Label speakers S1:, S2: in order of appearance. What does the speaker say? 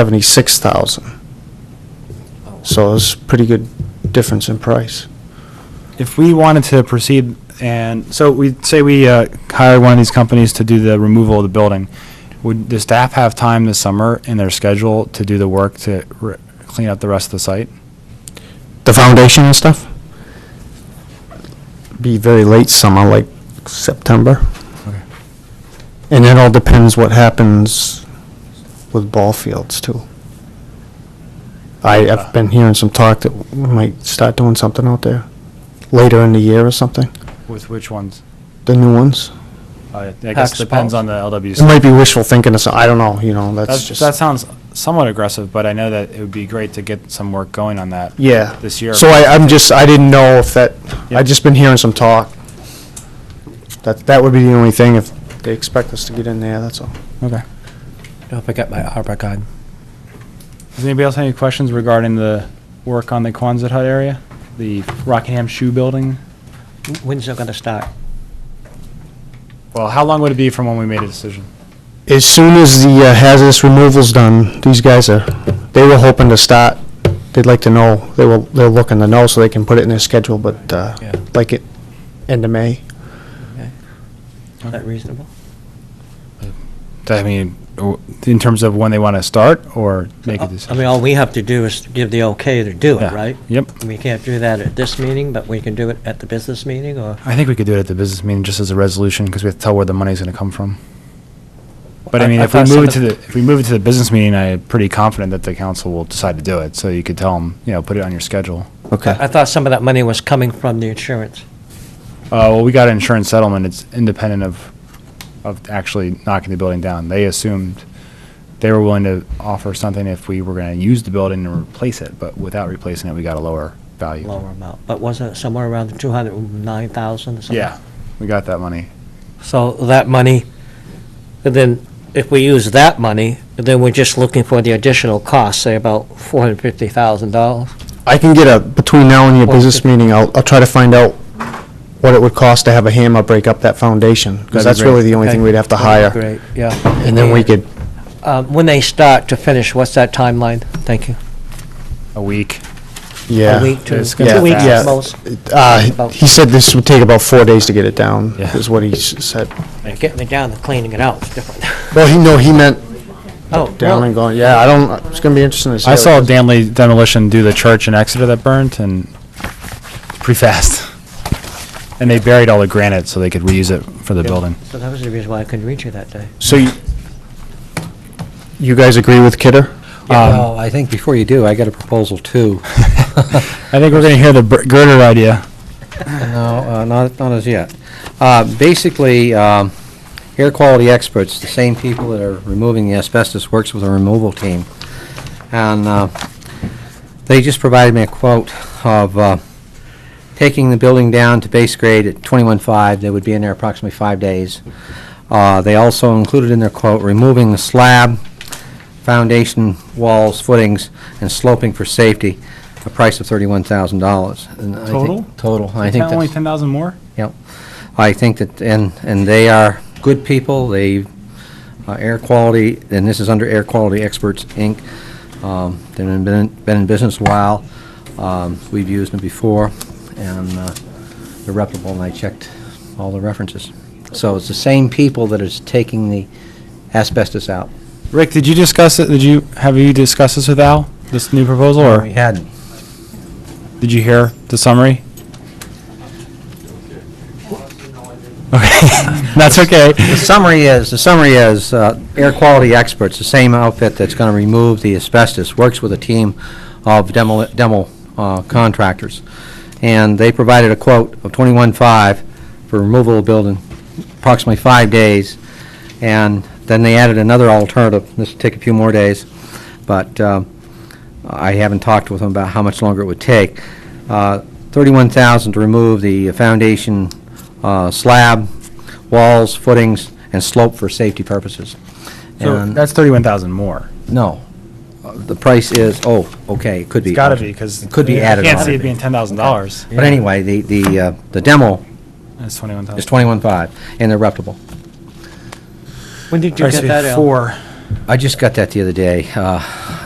S1: seventy-six thousand. So it's pretty good difference in price.
S2: If we wanted to proceed and, so we, say we uh, hired one of these companies to do the removal of the building, would the staff have time this summer in their schedule to do the work to re- clean up the rest of the site?
S1: The foundation and stuff? Be very late summer, like September.
S2: Okay.
S1: And it all depends what happens with ball fields too. I, I've been hearing some talk that we might start doing something out there later in the year or something,
S2: With which ones?
S1: the new ones.
S2: I guess
S1: Hacks,
S2: depends
S1: balls.
S2: on the
S1: It
S2: LWC.
S1: might be wishful thinking, or so- I don't know, you know, that's
S2: That's-
S1: just.
S2: That sounds somewhat aggressive, but I know that it would be great to get some work going on that
S1: Yeah.
S2: this year.
S1: So I, I'm just, I didn't know if that, i just been hearing some talk. That, that would be the only thing if they expect us to get in there, that's all.
S2: Okay.
S3: I'll pick up my ARPA card.
S2: Does anybody else have any questions regarding the work on the Quonset Hut area? The Rockingham Shoe Building?
S3: When's it gonna start?
S2: Well, how long would it be from when we made a decision?
S1: As soon as the uh, hazardous removal's done, these guys are, they were hoping to start, they'd like to know, they were, they're looking to know so they can put it in their schedule, but, uh,
S3: Yeah.
S1: like it, end of May.
S3: Is that reasonable?
S2: I mean, w- in terms of when they want to start or make a
S3: Oh, I
S2: decision?
S3: mean, all we have to do is give the okay to do it,
S2: Yeah.
S3: Uh, right?
S2: Yep.
S3: We can't do that at this meeting, but we can do it at the business meeting, or?
S2: I think we could do it at the business meeting just as a resolution because we have to tell where the money's going to come from. But I mean, if we
S3: thought some
S2: move it
S3: of-
S2: to the, if we move it to the business meeting, I'm pretty confident that the council will decide to do it. So you could tell them, you know, put it on your schedule.
S1: Okay.
S3: I thought some of that money was coming from the insurance.
S2: Uh, well, we got an insurance settlement. It's independent of, of actually knocking the building down. They assumed they were willing to offer something if we were going to use the building and replace it, but without replacing it, we got a lower value.
S3: lower amount, but wasn't it somewhere around 209,000 or something?
S2: Yeah, we got that money.
S3: So that money, and then if we use that money, then we're just looking for the additional cost, say about $450,000.
S1: I can get a, between now and your
S3: Well,
S1: business
S3: the-
S1: meeting, I'll, I'll try to find out what it would cost to have a hammer break up that foundation, because
S2: That'd be
S1: that's
S2: great.
S1: really the only thing
S3: Okay.
S1: we'd have to hire.
S3: Great, yeah.
S1: And then we could,
S3: Uh, When they start to finish, what's that timeline? Thank you.
S2: A week.
S1: yeah.
S3: A week, two,
S2: it's gonna
S3: two
S1: be
S3: weeks
S1: fast.
S3: at most.
S1: Uh, he said this would take about four days to get it down,
S2: Yeah.
S1: is what he s- said.
S3: Getting it down and cleaning it out is different.
S1: Well, he, no, he meant
S3: Oh,
S1: down and going, yeah, I don't, it's gonna be interesting to see.
S2: I
S1: how it
S2: saw
S1: goes.
S2: Danley demolition do the church in Exeter that burnt and pretty fast. And they buried all the granite so they could reuse it for the building.
S3: So that was the reason why I couldn't reach you that day.
S1: So you, you guys agree with Kidder?
S4: Well, I think before you do, I got a proposal too.
S2: I think we're going to hear the bur- girder idea.
S4: No, uh, not, not as yet. Uh, Basically, um, air quality experts, the same people that are removing the asbestos, works with a removal team. And uh, they just provided me a quote of uh, taking the building down to base grade at 21.5, they would be in there approximately five days. Uh, They also included in their quote, removing the slab, foundation, walls, footings, and sloping for safety, a price of $31,000. And I think-
S2: Total?
S4: Total. I think
S2: Only
S4: that's,
S2: 10,000 more?
S4: I think that, and, and they are good people, they, uh, air quality, and this is under Air Quality Experts, Inc. Um, They've been, been been in business a while, Um, we've used them before, and uh, they're reputable, and I checked all the references. So it's the same people that is taking the asbestos out.
S2: Rick, did you discuss it? Did you, have you discussed this with Al, this new proposal,
S4: We
S2: or
S4: hadn't.
S2: did you hear the summary? Okay, that's okay.
S4: The summary is, the summary is, uh, air quality experts, the same outfit that's going to remove the asbestos, works with a team of demo demo uh, contractors. And they provided a quote of 21.5 for removal of building, approximately five days. And then they added another alternative, this will take a few more days, but um, I haven't talked with them about how much longer it would take. Uh, 31,000 to remove the foundation uh, slab, walls, footings, and slope for safety purposes.
S2: So
S4: And-
S2: that's 31,000 more.
S4: No. Uh, The price is, oh, okay, it could be.
S2: It's gotta be, because.
S4: It could be added
S2: I can't
S4: on.
S2: see it being $10,000.
S4: But anyway, the, the, uh, the demo
S2: It's 21,000.
S4: is 21.5, and they're reputable.
S3: When did you get that, Al?
S2: Four.
S4: I just got that the other day. Uh,